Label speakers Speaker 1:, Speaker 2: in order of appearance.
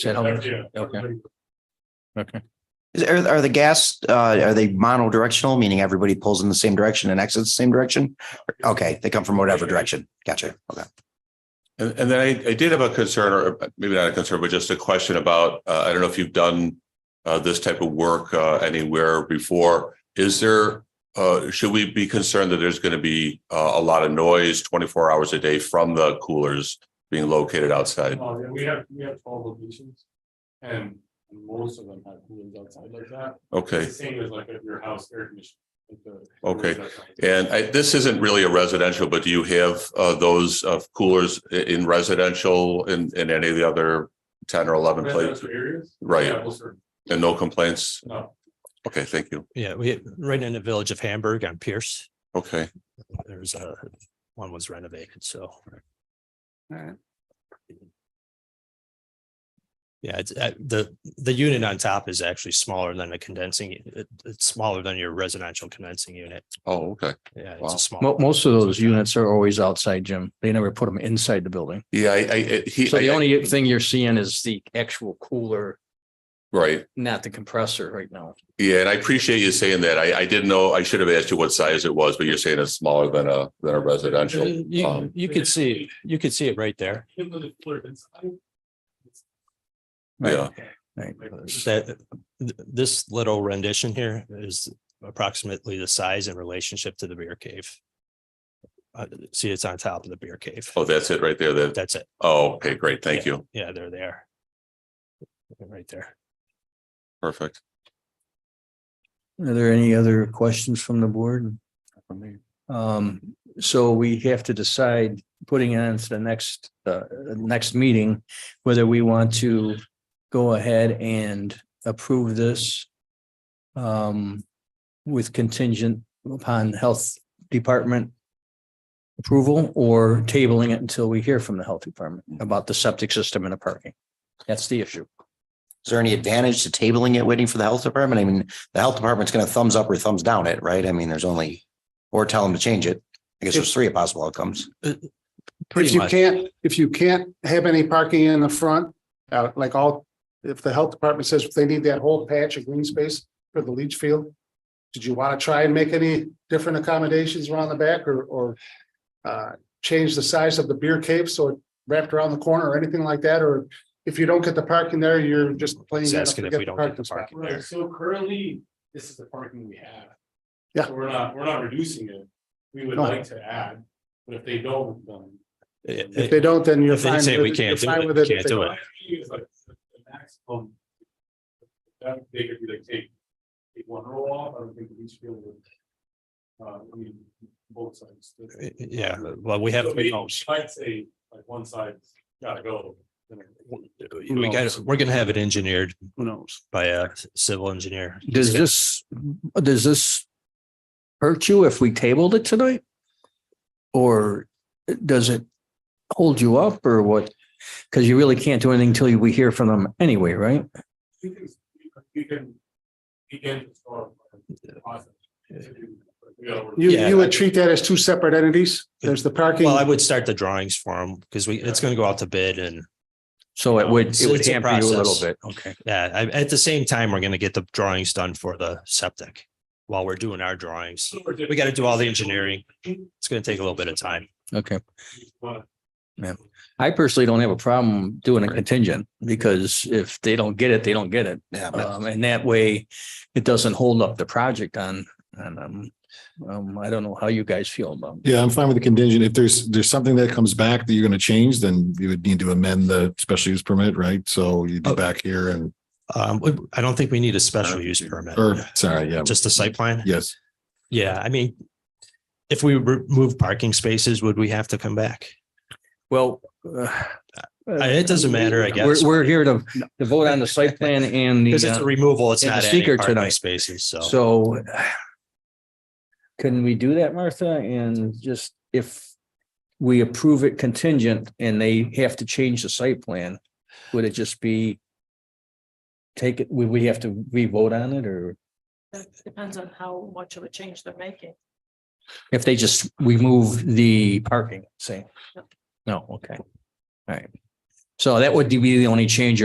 Speaker 1: that how much?
Speaker 2: Yeah.
Speaker 1: Okay. Okay.
Speaker 3: Is, are, are the gas, uh, are they monodirectional, meaning everybody pulls in the same direction and exits the same direction? Okay, they come from whatever direction. Gotcha. Okay.
Speaker 4: And, and then I, I did have a concern, or maybe not a concern, but just a question about, uh, I don't know if you've done uh, this type of work uh, anywhere before. Is there, uh, should we be concerned that there's going to be uh, a lot of noise twenty-four hours a day from the coolers being located outside?
Speaker 2: Oh, yeah, we have, we have twelve locations. And most of them have coolers outside like that.
Speaker 4: Okay.
Speaker 2: It's the same as like at your house air conditioning. like the-
Speaker 4: Okay.
Speaker 2: outside.
Speaker 4: And I, this isn't really a residential, but do you have uh, those uh, coolers i- in residential in, in any of the other ten or eleven places?
Speaker 2: Residential areas?
Speaker 4: Right.
Speaker 2: Yeah, we'll serve,
Speaker 4: And no complaints?
Speaker 2: no.
Speaker 4: Okay, thank you.
Speaker 5: Yeah, we, right in the village of Hamburg on Pierce,
Speaker 4: Okay.
Speaker 5: there's a, one was renovated, so.
Speaker 6: Alright.
Speaker 5: Yeah, it's, uh, the, the unit on top is actually smaller than the condensing, it, it's smaller than your residential condensing unit.
Speaker 4: Oh, okay.
Speaker 5: Yeah,
Speaker 4: Wow.
Speaker 5: it's a small.
Speaker 1: Mo- most of those units are always outside, Jim. They never put them inside the building.
Speaker 4: Yeah, I, I, it- he.
Speaker 1: So the
Speaker 4: I- I-
Speaker 1: only thing you're seeing is the actual cooler,
Speaker 4: Right.
Speaker 1: not the compressor right now.
Speaker 4: Yeah, and I appreciate you saying that. I, I didn't know, I should have asked you what size it was, but you're saying it's smaller than a, than a residential.
Speaker 5: Uh, You,
Speaker 4: Um,
Speaker 5: you could see, you could see it right there.
Speaker 2: Even with the cooler inside,
Speaker 4: Yeah,
Speaker 1: Right.
Speaker 5: That, th- this little rendition here is approximately the size in relationship to the beer cave. Uh, see, it's on top of the beer cave.
Speaker 4: oh, that's it right there. That,
Speaker 5: That's it.
Speaker 4: oh, okay, great. Thank you.
Speaker 5: Yeah, they're there. Right there.
Speaker 4: Perfect.
Speaker 1: Are there any other questions from the board? Um, so we have to decide, putting it on to the next, uh, next meeting, whether we want to go ahead and approve this um, with contingent upon health department approval or tabling it until we hear from the health department about the septic system and the parking. That's the issue.
Speaker 3: Is there any advantage to tabling it, waiting for the health department? I mean, the health department's going to thumbs up or thumbs down it, right? I mean, there's only, or tell them to change it. I guess there's three possible outcomes.
Speaker 6: If
Speaker 5: Pretty
Speaker 6: you
Speaker 5: much.
Speaker 6: can't, if you can't have any parking in the front, uh, like all, if the health department says they need that whole patch of green space for the leach field. Did you want to try and make any different accommodations around the back or, or uh, change the size of the beer cave so it wrapped around the corner or anything like that? Or if you don't get the parking there, you're just playing.
Speaker 5: He's
Speaker 6: that up
Speaker 5: asking
Speaker 6: to
Speaker 5: if
Speaker 6: get
Speaker 5: we
Speaker 6: the
Speaker 5: don't get the
Speaker 6: spot.
Speaker 5: parking.
Speaker 2: Right, so currently, this is the parking we have.
Speaker 6: Yeah.
Speaker 2: So We're not, we're not reducing it. We would
Speaker 6: No.
Speaker 2: like to add, but if they don't, then.
Speaker 5: It-
Speaker 6: If they
Speaker 5: it-
Speaker 6: don't, then you're
Speaker 5: If they
Speaker 6: fine.
Speaker 5: say
Speaker 6: with
Speaker 5: we
Speaker 6: it.
Speaker 5: can't
Speaker 6: You're
Speaker 5: do
Speaker 6: fine
Speaker 5: it,
Speaker 6: with
Speaker 5: can't
Speaker 6: If they
Speaker 5: do it.
Speaker 2: My view is like the maximum. That they could be like take, take one row off, I don't think each field would. Uh, I mean, both sides.
Speaker 5: Yeah, well, we have,
Speaker 2: So
Speaker 5: we
Speaker 2: maybe
Speaker 5: know,
Speaker 2: she Might say, like, one side's gotta go. then
Speaker 5: we got, we're gonna have it engineered. Who knows? By a civil engineer.
Speaker 1: Does this, does this hurt you if we tabled it tonight? Or does it hold you up or what? Because you really can't do anything until we hear from them anyway, right?
Speaker 2: We can, we can begin to start. the process. We gotta work-
Speaker 6: You,
Speaker 5: Yeah.
Speaker 6: you would treat that as two separate entities. There's the parking.
Speaker 5: Well, I would start the drawings for them because we, it's gonna go out to bid and,
Speaker 1: So it would,
Speaker 5: It's-
Speaker 1: it would
Speaker 5: it's a
Speaker 1: hamper you a little
Speaker 5: process.
Speaker 1: bit. Okay.
Speaker 5: yeah, I- at the same time, we're gonna get the drawings done for the septic. While we're doing our drawings, we gotta do all the engineering. It's gonna take a little bit of time.
Speaker 1: Okay.
Speaker 2: But
Speaker 1: I personally don't have a problem doing a contingent because if they don't get it, they don't get it.
Speaker 3: Yeah. but-
Speaker 1: Um, and that way it doesn't hold up the project on, on, um, um, I don't know how you guys feel about. it.
Speaker 7: Yeah, I'm fine with the contingent. If there's, there's something that comes back that you're gonna change, then you would need to amend the special use permit, right? So you'd be
Speaker 5: Oh.
Speaker 7: back here and,
Speaker 5: Um, we- I don't think we need a special use permit.
Speaker 7: or, sorry, yeah,
Speaker 5: Just a site plan?
Speaker 7: yes.
Speaker 5: Yeah, I mean, if we remove parking spaces, would we have to come back?
Speaker 1: Well. uh,
Speaker 5: It doesn't matter, I guess.
Speaker 1: We're, we're here to, to vote on the site plan and
Speaker 5: Because it's a
Speaker 1: the,
Speaker 5: removal, it's
Speaker 1: and the
Speaker 5: not
Speaker 1: seeker
Speaker 5: adding parking
Speaker 1: tonight.
Speaker 5: spaces,
Speaker 1: uh,
Speaker 5: so.
Speaker 1: so. Can we do that, Martha? And just if we approve it contingent and they have to change the site plan, would it just be? Take it, would we have to re-vote on it or
Speaker 8: Depends on how much of a change they're making.
Speaker 1: if they just remove the parking, say? No, okay. All right. So that would be the only change